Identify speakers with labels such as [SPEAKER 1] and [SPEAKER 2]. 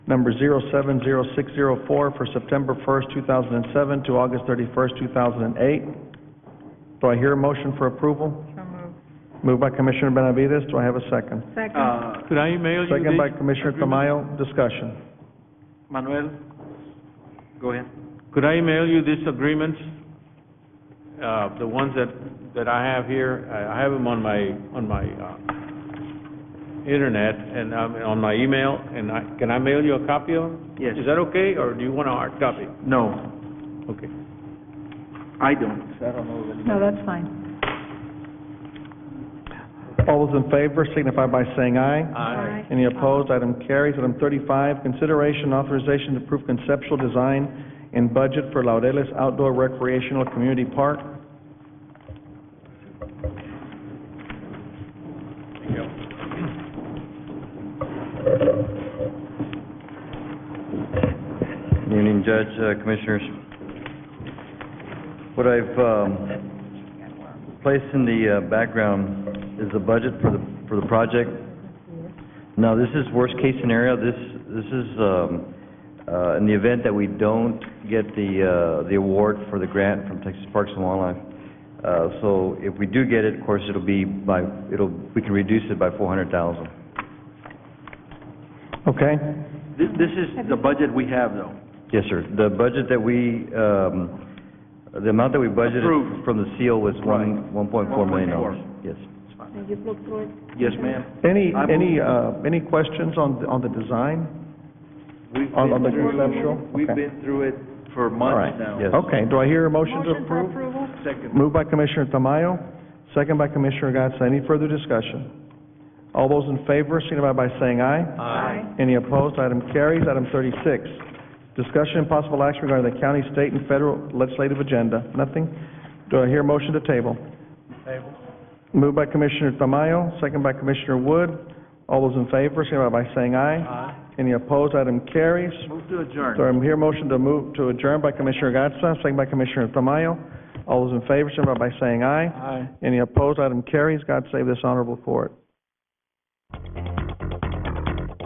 [SPEAKER 1] number 070604 for September 1st, 2007 to August 31st, 2008. Do I hear a motion for approval?
[SPEAKER 2] So moved.
[SPEAKER 1] Moved by Commissioner Benavides, do I have a second?
[SPEAKER 2] Second.
[SPEAKER 3] Uh,
[SPEAKER 4] Could I email you
[SPEAKER 1] Second by
[SPEAKER 4] these?
[SPEAKER 1] Commissioner Tamayo, discussion.
[SPEAKER 3] Manuel, go ahead.
[SPEAKER 4] Could I email you these agreements? Uh, the ones that, that I have here, I, I have them on my, on my, uh, internet and, um, on my email, and I, can I mail you a copy of them?
[SPEAKER 3] Yes.
[SPEAKER 4] Is that okay, or do you want a hard copy?
[SPEAKER 3] No,
[SPEAKER 4] Okay.
[SPEAKER 3] I don't.
[SPEAKER 2] No, that's fine.
[SPEAKER 1] All those in favor signify by saying aye.
[SPEAKER 2] Aye.
[SPEAKER 1] Any opposed, item carries. Item thirty-five, consideration and authorization to approve conceptual design and budget for Laureles Outdoor Recreational Community Park.
[SPEAKER 5] Evening, Judge, uh, Commissioners. What I've um, placed in the uh, background is the budget for the, for the project. Now, this is worst-case scenario. This, this is um, uh, in the event that we don't get the, uh, the award for the grant from Texas Parks and Wildlife. Uh, So if we do get it, of course, it'll be by, it'll, we can reduce it by 400,000.
[SPEAKER 1] Okay?
[SPEAKER 3] This, this is the budget we have, though.
[SPEAKER 5] Yes, sir. The budget that we, um, the amount that we budgeted
[SPEAKER 3] Approved.
[SPEAKER 5] from the seal was one, one point four million dollars. Yes.
[SPEAKER 3] Yes, ma'am.
[SPEAKER 1] Any,
[SPEAKER 3] I move-
[SPEAKER 1] any, uh, any questions on, the- on the design?
[SPEAKER 3] We've
[SPEAKER 1] On- on
[SPEAKER 3] been
[SPEAKER 1] the
[SPEAKER 3] through-
[SPEAKER 1] conceptual?
[SPEAKER 3] We've
[SPEAKER 1] Okay.
[SPEAKER 3] been through it for
[SPEAKER 5] All right,
[SPEAKER 3] months now.
[SPEAKER 5] yes.
[SPEAKER 1] Okay, do I hear a motion to
[SPEAKER 2] Motion for
[SPEAKER 1] approve?
[SPEAKER 2] approval?
[SPEAKER 3] Second.
[SPEAKER 1] Moved by Commissioner Tamayo, second by Commissioner Gatsa. Any further discussion? All those in favor signify by saying aye.
[SPEAKER 2] Aye.
[SPEAKER 1] Any opposed, item carries. Item thirty-six, discussion and possible action regarding the county, state, and federal legislative agenda. Nothing? Do I hear a motion to table? Table. Moved by Commissioner Tamayo, second by Commissioner Wood. All those in favor, signify by saying aye. Aye. Any opposed, item carries.
[SPEAKER 3] Move to
[SPEAKER 1] So
[SPEAKER 3] adjourn.
[SPEAKER 1] I'm here, motion to move, to adjourn by Commissioner Gatsa, second by Commissioner Tamayo. All those in favor, signify by saying aye. Aye. Any opposed, item carries. God save this honorable court.